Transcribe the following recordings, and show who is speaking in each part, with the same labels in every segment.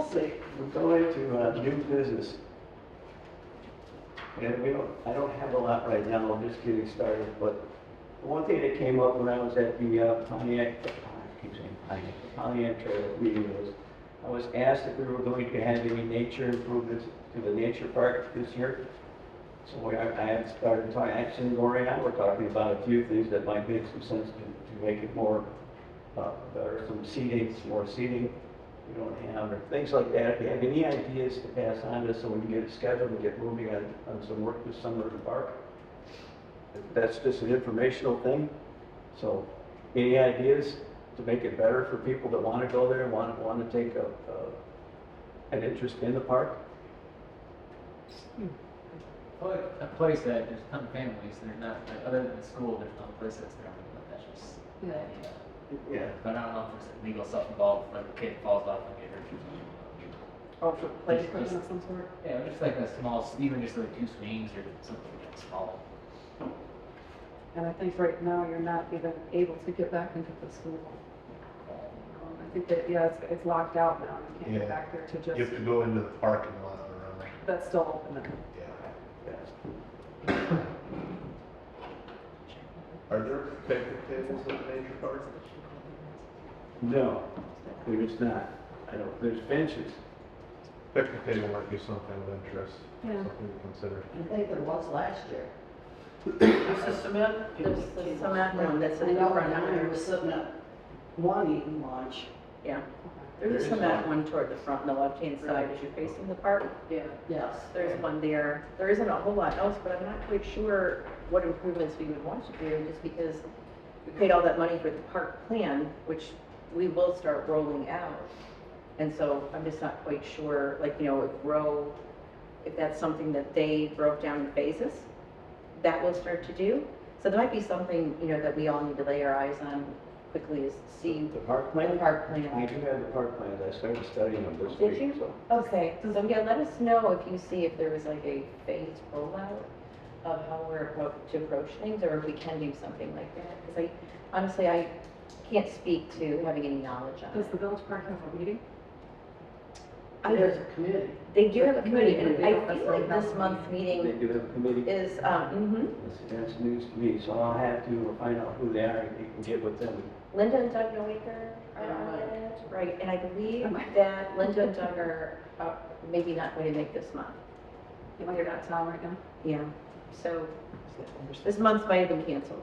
Speaker 1: We're going to uh, new business. And we don't, I don't have a lot right now, I'm just getting started, but the one thing that came up when I was at the uh, Pontiac, I keep saying Pontiac, Pontiac Trail meeting was, I was asked if we were going to have any nature improvements to the nature park this year. So I, I had started talking, actually Lori and I were talking about a few things that might make some sense to, to make it more, uh, better, some seating, some more seating we don't have, or things like that. If you have any ideas to pass on to us so we can get it scheduled and get moving on, on some work this summer in the park. That's just an informational thing. So any ideas to make it better for people that want to go there, want, want to take a, a, an interest in the park?
Speaker 2: Put a place that there's some families, there's not, like, other than school, there's no place that's there, but that's just.
Speaker 3: Yeah.
Speaker 1: Yeah.
Speaker 2: But I don't know if there's legal stuff involved, like a kid falls off and get hurt or something.
Speaker 3: Also, play equipment of some sort.
Speaker 2: Yeah, just like a small, even just like two swings or something like small.
Speaker 3: And I think right now you're not even able to get back into the school. Um, I think that, yeah, it's, it's locked out now. You can't
Speaker 4: Yeah.
Speaker 3: get back there to
Speaker 4: You have to
Speaker 3: just,
Speaker 4: go into the parking lot around,
Speaker 3: that's still open now.
Speaker 4: yeah.
Speaker 1: yeah.
Speaker 4: Are there picnic tables at the nature parks?
Speaker 1: No, there's not. I don't, there's benches.
Speaker 4: Picnic table might be something of interest,
Speaker 3: Yeah.
Speaker 4: something to consider.
Speaker 5: I think there was last year. There's a cement, there's a cement one that's in the front, I remember sitting at one eating lunch.
Speaker 6: Yeah,
Speaker 1: There
Speaker 6: there's
Speaker 1: is
Speaker 6: a cement
Speaker 1: one.
Speaker 6: one toward the front, on the left-hand side as you're facing the park.
Speaker 3: Yeah.
Speaker 5: Yes.
Speaker 6: There's one there. There isn't a whole lot else, but I'm not quite sure what improvements we would want to do, just because we paid all that money for the park plan, which we will start rolling out. And so I'm just not quite sure, like, you know, if Row, if that's something that they broke down in phases, that we'll start to do. So there might be something, you know, that we all need to lay our eyes on quickly is see
Speaker 1: The park
Speaker 6: the
Speaker 1: plan?
Speaker 6: park
Speaker 1: We
Speaker 6: plan.
Speaker 1: do have the park plans. I started studying them this
Speaker 6: Did
Speaker 1: week,
Speaker 6: you?
Speaker 1: so.
Speaker 6: Okay, so yeah, let us know if you see if there was like a phased rollout of how we're appro- to approach things, or if we can do something like that, because I, honestly, I can't speak to having any knowledge on
Speaker 3: Does the
Speaker 6: it.
Speaker 3: village park have a meeting?
Speaker 5: There's
Speaker 6: I-
Speaker 5: a committee.
Speaker 6: They do have a
Speaker 3: But
Speaker 6: committee,
Speaker 3: committee,
Speaker 6: and
Speaker 3: they
Speaker 6: I
Speaker 3: don't
Speaker 6: feel
Speaker 3: necessarily
Speaker 6: like this
Speaker 3: have a
Speaker 6: month's
Speaker 1: They
Speaker 6: meeting
Speaker 1: do have a committee.
Speaker 6: is,
Speaker 3: Mm-hmm.
Speaker 6: um,
Speaker 1: That's, that's news to me, so I'll have to find out who they are and you can get with them.
Speaker 6: mhm. Linda and Doug Noaker are
Speaker 5: Yeah,
Speaker 6: on
Speaker 5: right.
Speaker 6: it, right, and I believe
Speaker 3: Am I-
Speaker 6: that Linda and Doug are, uh, maybe not going to make this month,
Speaker 3: Well, you're out of town right now.
Speaker 6: yeah, so This month might have been canceled.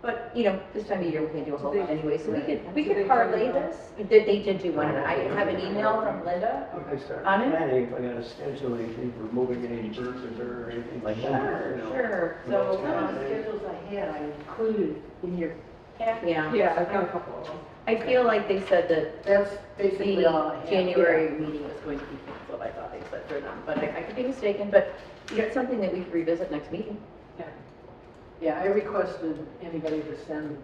Speaker 6: But, you know, this time of year, we can do a whole lot anyway, so we could, we could parlay this. They, they did do one, I have an email from Linda.
Speaker 1: If I start
Speaker 6: On it?
Speaker 1: planning, if I gotta schedule anything for moving any birds or dirt or anything like that,
Speaker 6: Sure,
Speaker 1: you know.
Speaker 6: sure, so,
Speaker 5: Some of the
Speaker 6: um,
Speaker 5: schedules I had, I included in your,
Speaker 6: yeah.
Speaker 3: Yeah, I've got a couple of them.
Speaker 6: I feel like they said that
Speaker 5: that's
Speaker 6: the
Speaker 5: basically all I had.
Speaker 6: January meeting was going to be canceled, I thought they said for them, but I, I could be mistaken, but you know, it's something that we could revisit next meeting.
Speaker 5: Yeah, I requested anybody to send,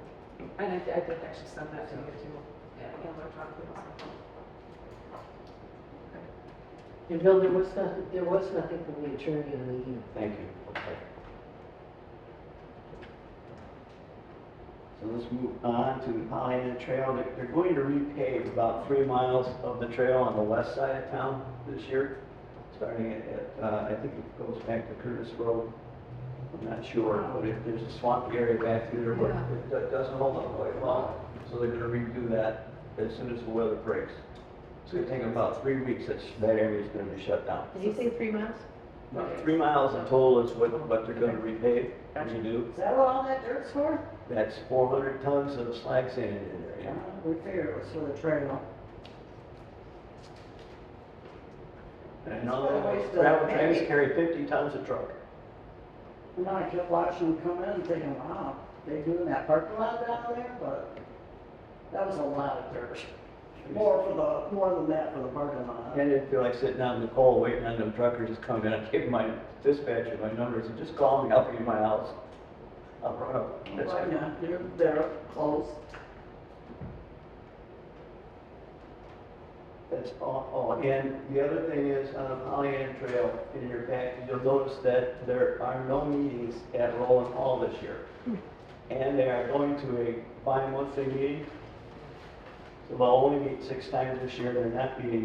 Speaker 3: And I, I did actually send that to you too. Yeah, electronically.
Speaker 5: and Bill, there was nothing, there was nothing from the attorney in the email.
Speaker 1: Thank you. Okay. So let's move on to the Pollyanna Trail. They're, they're going to repave about three miles of the trail on the west side of town this year. Starting at- at, uh, I think it goes back to Curtis Road. I'm not sure, but if there's a swampy area back through there, where it do- doesn't hold up quite well. So they're gonna redo that as soon as the weather breaks. It's gonna take about three weeks, that's, that area's gonna be shut down.
Speaker 6: Did you say three miles?
Speaker 1: About Three miles in total is what, what they're gonna repave, and do.
Speaker 5: Is that what all that dirt's for?
Speaker 1: That's four hundred tons of slag sand in there,
Speaker 5: Yeah,
Speaker 1: yeah.
Speaker 5: we figured it was for the trail.
Speaker 1: And all the gravel trains carry fifty tons of truck.
Speaker 5: And then I kept watching them come in, thinking, wow, they doing that parking lot down there, but that was a lot of dirt. More for the, more than that for the parking lot.
Speaker 1: And I didn't feel like sitting out in the cold waiting on them truckers to come in. I gave my dispatcher my numbers and just call me, I'll be in my house. I'll run up. That's-
Speaker 5: Why not? They're, they're close.
Speaker 1: That's all, all. and the other thing is, on the Pollyanna Trail, in your package, you'll notice that there are no meetings at Roland Hall this year. And they are going to a bi-monthly meeting. So they'll only meet six times this year, they're not meeting